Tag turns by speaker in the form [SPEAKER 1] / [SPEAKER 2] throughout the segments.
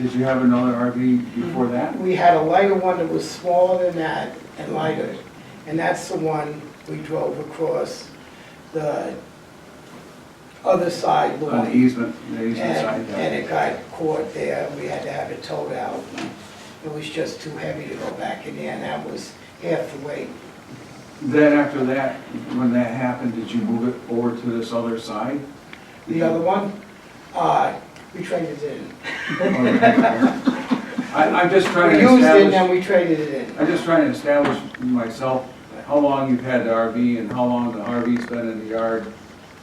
[SPEAKER 1] Did you have another RV before that?
[SPEAKER 2] We had a lighter one that was smaller than that and lighter, and that's the one we drove across the other side
[SPEAKER 1] On the
[SPEAKER 2] lawn.
[SPEAKER 1] easement, the easement side,
[SPEAKER 2] And, and
[SPEAKER 1] yeah.
[SPEAKER 2] Mm. it got caught there, we had to have it towed out. It was just too heavy to go back in there, and that was half the weight.
[SPEAKER 1] Then after that, when that happened, did you move it over to this other side?
[SPEAKER 2] The other one, uh, we traded it in.
[SPEAKER 1] I, I'm just trying
[SPEAKER 2] We
[SPEAKER 1] to
[SPEAKER 2] used it and then
[SPEAKER 1] establish,
[SPEAKER 2] we traded it in.
[SPEAKER 1] I'm just trying to establish myself, how long you've had the RV and how long the RV's been in the yard,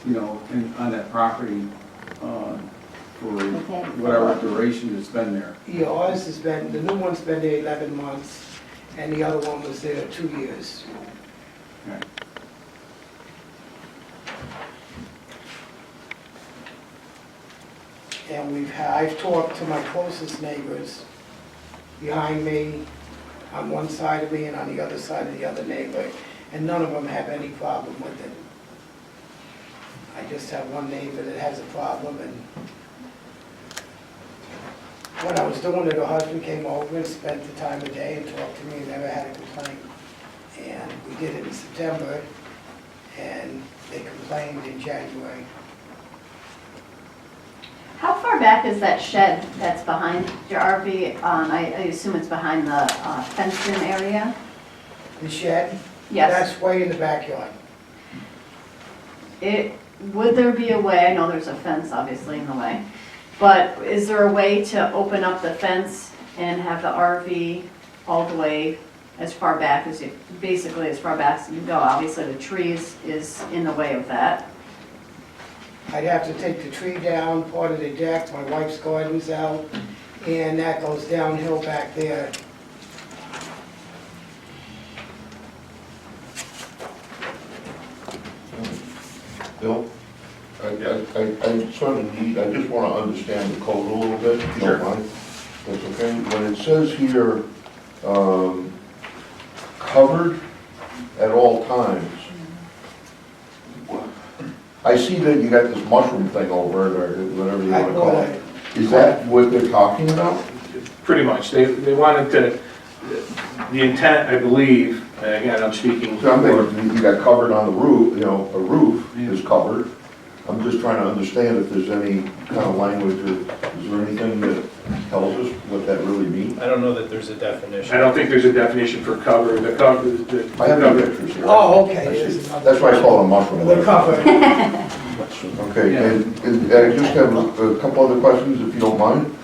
[SPEAKER 1] you know, in, on that property, uh, for whatever duration it's been there.
[SPEAKER 2] Yeah, ours has been, the new one's been there eleven months, and the other one was there two years.
[SPEAKER 1] Okay.
[SPEAKER 2] And we've, ha- I've talked to my closest neighbors behind me, on one side of me and on the other side of the other neighbor, and none of them have any problem with it. I just have one neighbor that has a problem, and when I was doing it, her husband came over and spent the time of day and talked to me, and never had a complaint. And we did it in September, and they complained in January.
[SPEAKER 3] How far back is that shed that's behind your RV? Um, I, I assume it's behind the uh, fenced-in area?
[SPEAKER 2] The shed?
[SPEAKER 3] Yes.
[SPEAKER 2] That's way in the backyard.
[SPEAKER 3] It, would there be a way, I know there's a fence obviously in the way, but is there a way to open up the fence and have the RV all the way as far back as you, basically as far back as you can go? Obviously, the trees is in the way of that.
[SPEAKER 2] I'd have to take the tree down, part of the deck, my wife's garden's out, and that goes downhill back there.
[SPEAKER 4] Bill, I, I, I- I sort of need, I just want to understand the code a little bit, if you
[SPEAKER 5] Sure.
[SPEAKER 4] don't mind. That's okay. When it says here, um, covered at all times, I see that you got this mushroom thing over it, or whatever you
[SPEAKER 2] I
[SPEAKER 4] want to call
[SPEAKER 2] bought
[SPEAKER 4] it. Is that what they're talking about?
[SPEAKER 5] Pretty much, they, they wanted to, the intent, I believe, and again, I'm speaking
[SPEAKER 4] So I'm
[SPEAKER 5] for,
[SPEAKER 4] thinking you got covered on the roof, you know, a roof is covered. I'm just trying to understand if there's any kind of language or is there anything that tells us what that really means?
[SPEAKER 6] I don't know that there's a definition.
[SPEAKER 5] I don't think there's a definition for cover, the cover, the
[SPEAKER 4] I have no
[SPEAKER 5] cover.
[SPEAKER 4] pictures here.
[SPEAKER 2] Oh, okay,
[SPEAKER 4] I see.
[SPEAKER 2] there's another-
[SPEAKER 4] That's why I call it a mushroom.
[SPEAKER 2] The cover.
[SPEAKER 4] Okay, and, and I just have a couple other questions, if you don't mind.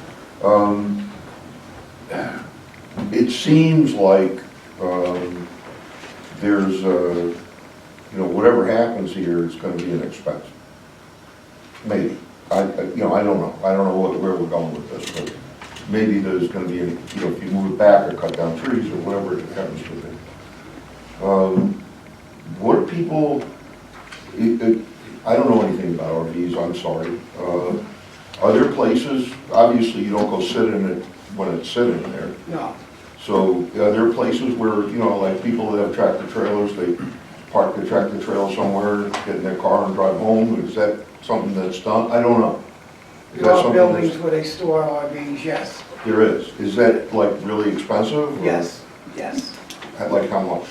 [SPEAKER 4] Um, It seems like, um, there's a, you know, whatever happens here is gonna be an expense. Maybe, I, I- you know, I don't know, I don't know what- where we're going with this, but maybe there's gonna be, an you know, if you move it back or cut down trees or whatever it happens to be. Um, What are people, it, it, I don't know anything about RVs, I'm sorry. Uh, Are there places, obviously you don't go sit in it when it's sitting there,
[SPEAKER 2] No,
[SPEAKER 4] so are there places where, you know, like people that have tractor trailers, they park their tractor trailer somewhere, get in their car and drive home, is that something that's done? I don't know.
[SPEAKER 2] there
[SPEAKER 4] Is that
[SPEAKER 2] are
[SPEAKER 4] something that's-
[SPEAKER 2] buildings where they store RVs, yes,
[SPEAKER 4] There is, is that like really expensive? or-
[SPEAKER 2] yes, yes.
[SPEAKER 4] Like how much?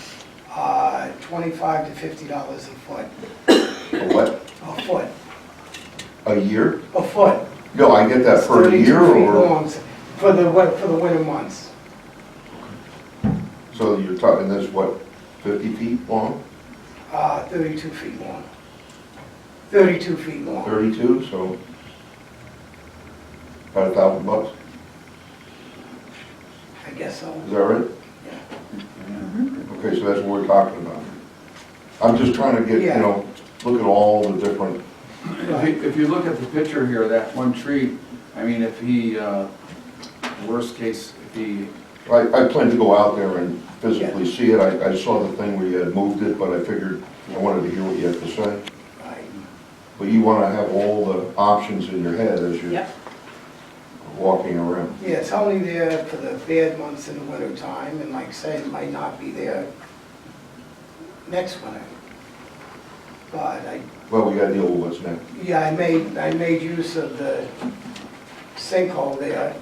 [SPEAKER 2] Uh, twenty-five to fifty dollars a foot,
[SPEAKER 4] A what,
[SPEAKER 2] a foot,
[SPEAKER 4] a year?
[SPEAKER 2] a foot.
[SPEAKER 4] No, I get that
[SPEAKER 2] It's
[SPEAKER 4] per
[SPEAKER 2] 32
[SPEAKER 4] year
[SPEAKER 2] feet
[SPEAKER 4] or,
[SPEAKER 2] long, For the, win- for the winter months,
[SPEAKER 4] so you're talking this, what, fifty feet long?
[SPEAKER 2] uh, thirty-two feet long. Thirty-two feet long.
[SPEAKER 4] 32, so about a thousand bucks,
[SPEAKER 2] I guess so.
[SPEAKER 4] is that right? Okay, so that's what we're talking about. I'm just trying to get, you
[SPEAKER 2] Yeah.
[SPEAKER 4] know, look at all the different,
[SPEAKER 1] If you- if you look at the picture here, that one tree, I mean, if he, uh, worst case, if he
[SPEAKER 4] I, I plan to go out there and physically see it. I, I saw the thing where you had moved it, but I figured I wanted to hear what you had to say.
[SPEAKER 2] Right.
[SPEAKER 4] But you want to have all the options in your head as you're
[SPEAKER 3] Yep.
[SPEAKER 4] walking around.
[SPEAKER 2] Yeah, it's only there for the bad months in the winter time, and like I say, it might not be there next winter. But I,
[SPEAKER 4] Well, we got to deal with what's next.
[SPEAKER 2] yeah, I made, I made use of the sinkhole there